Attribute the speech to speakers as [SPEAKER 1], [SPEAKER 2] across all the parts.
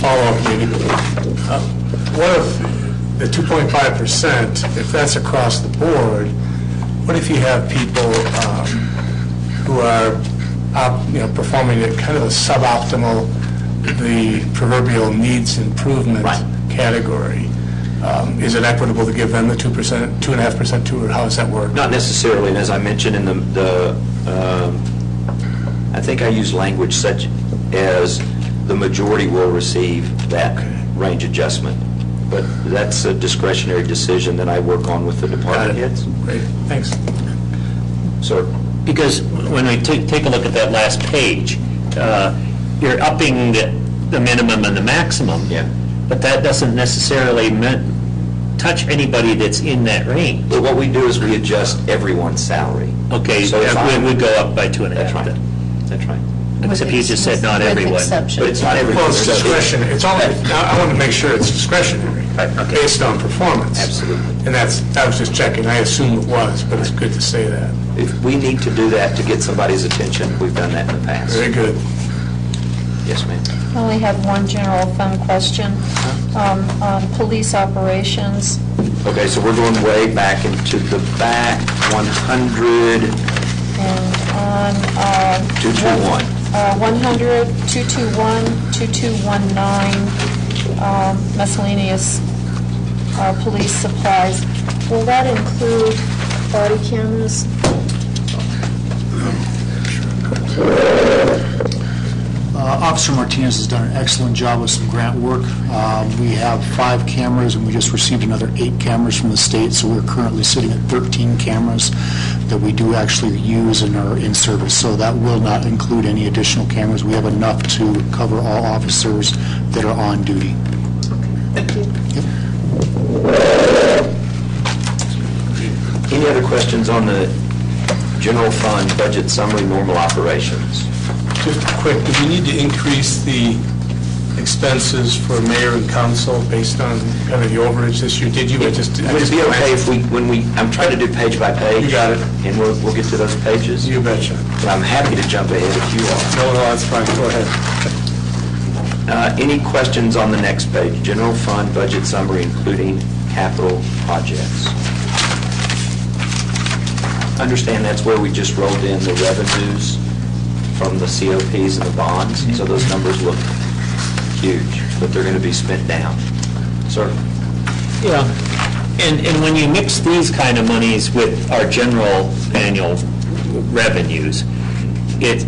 [SPEAKER 1] follow-up meeting. Uh, What if the 2.5%, if that's across the board, what if you have people um, who are, op- you know, performing at kind of a suboptimal, the proverbial needs improvement
[SPEAKER 2] Right.
[SPEAKER 1] category? Um, Is it equitable to give them the 2%, 2.5% too, or how does that work?
[SPEAKER 2] Not necessarily, and as I mentioned in the, the, um, I think I use language such as the majority will receive that range adjustment, but that's a discretionary decision that I work on with the department heads.
[SPEAKER 1] Great, thanks.
[SPEAKER 2] Sir?
[SPEAKER 3] Because when we take, take a look at that last page, uh, you're upping the, the minimum and the maximum.
[SPEAKER 2] Yeah.
[SPEAKER 3] But that doesn't necessarily mean, touch anybody that's in that range.
[SPEAKER 2] But what we do is we adjust everyone's salary.
[SPEAKER 3] Okay,
[SPEAKER 2] So if
[SPEAKER 3] we
[SPEAKER 2] I'm-
[SPEAKER 3] would go up by two and a
[SPEAKER 2] That's
[SPEAKER 3] half.
[SPEAKER 2] right,
[SPEAKER 3] then.
[SPEAKER 2] that's right.
[SPEAKER 3] Except you just said not
[SPEAKER 4] With
[SPEAKER 3] everyone.
[SPEAKER 4] exception.
[SPEAKER 2] But it's not everyone.
[SPEAKER 1] Well, it's discretionary, it's only, I want to make sure it's discretionary,
[SPEAKER 3] okay.
[SPEAKER 1] based on performance.
[SPEAKER 2] Absolutely.
[SPEAKER 1] And that's, I was just checking, I assume it was, but it's good to say that.
[SPEAKER 2] If we need to do that to get somebody's attention, we've done that in the past.
[SPEAKER 1] Very good.
[SPEAKER 2] Yes, ma'am.
[SPEAKER 4] Well, we have one general fund question. Um, um, Police operations,
[SPEAKER 2] Okay, so we're going way back into the back 100,
[SPEAKER 4] and on... uh,
[SPEAKER 2] 221.
[SPEAKER 4] uh, 100, 221, 2219, um, miscellaneous uh, police supplies. Will that include body cameras?
[SPEAKER 5] Uh, Officer Martinez has done an excellent job with some grant work. Um, We have five cameras, and we just received another eight cameras from the state, so we're currently sitting at 13 cameras that we do actually use and are in service. So that will not include any additional cameras. We have enough to cover all officers that are on duty.
[SPEAKER 2] Any other questions on the general fund budget summary normal operations?
[SPEAKER 6] Just quick, do we need to increase the expenses for mayor and council based on kind of the overage this year? Did you, I just... I
[SPEAKER 2] Would
[SPEAKER 6] just-
[SPEAKER 2] it be okay if we, when we, I'm trying to do page by page?
[SPEAKER 6] You got it.
[SPEAKER 2] And we'll, we'll get to those pages.
[SPEAKER 6] You betcha.
[SPEAKER 2] But I'm happy to jump ahead if you are.
[SPEAKER 6] No, no, that's fine, go ahead.
[SPEAKER 2] Uh, Any questions on the next page? General fund budget summary, including capital projects. Understand that's where we just rolled in the revenues from the COPs and the bonds, so those numbers look huge, but they're going to be spent down. Sir?
[SPEAKER 3] Yeah, and, and when you mix these kind of monies with our general annual revenues, it,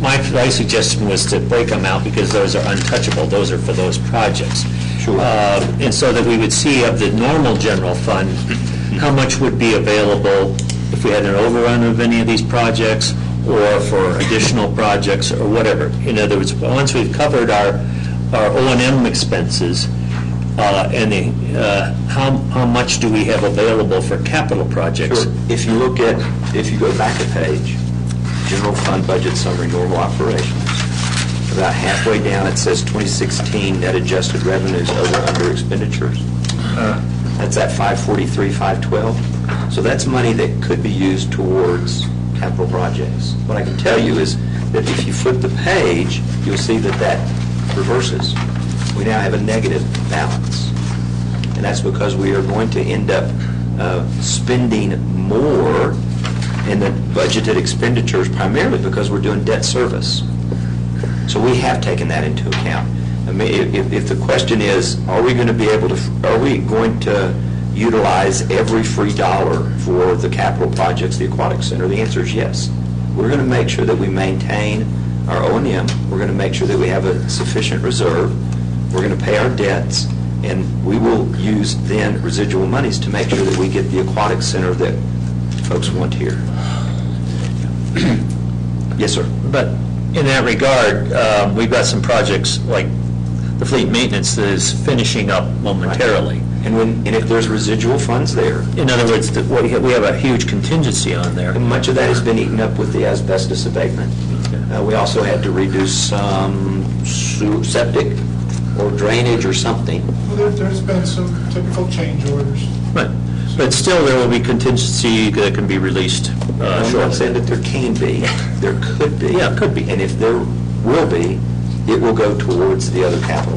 [SPEAKER 3] my, my suggestion was to break them out because those are untouchable, those are for those projects.
[SPEAKER 2] Sure.
[SPEAKER 3] Uh, And so that we would see of the normal general fund, how much would be available if we had an overrun of any of these projects or for additional projects or whatever. In other words, once we've covered our, our O and M expenses, uh, and the, uh, how, how much do we have available for capital projects?
[SPEAKER 2] Sure. If you look at, if you go back a page, general fund budget summary, normal operations, about halfway down, it says 2016 net adjusted revenues over under expenditures. That's at 543, 512. So that's money that could be used towards capital projects. What I can tell you is that if you flip the page, you'll see that that reverses. We now have a negative balance. And that's because we are going to end up uh, spending more in the budgeted expenditures primarily because we're doing debt service. So we have taken that into account. I mean, if- if, if the question is, are we going to be able to, are we going to utilize every free dollar for the capital projects, the aquatic center? The answer is yes. We're going to make sure that we maintain our O and M. We're going to make sure that we have a sufficient reserve. We're going to pay our debts, and we will use then residual monies to make sure that we get the aquatic center that folks want here. Yes, sir.
[SPEAKER 3] But in that regard, um, we've got some projects like the fleet maintenance that is finishing up momentarily.
[SPEAKER 2] And when, and if there's residual funds there,
[SPEAKER 3] In other words, that what we have- we have a huge contingency on there.
[SPEAKER 2] And much of that has been eaten up with the asbestos abatement. Uh, We also had to reduce some su- septic or drainage or something.
[SPEAKER 7] Well, there- There's been some typical change orders.
[SPEAKER 3] But but still, there will be contingency that can be released uh,
[SPEAKER 2] I'm not saying
[SPEAKER 3] shortly.
[SPEAKER 2] that there can be, there could be.
[SPEAKER 3] Yeah, could be.
[SPEAKER 2] And if there will be, it will go towards the other capital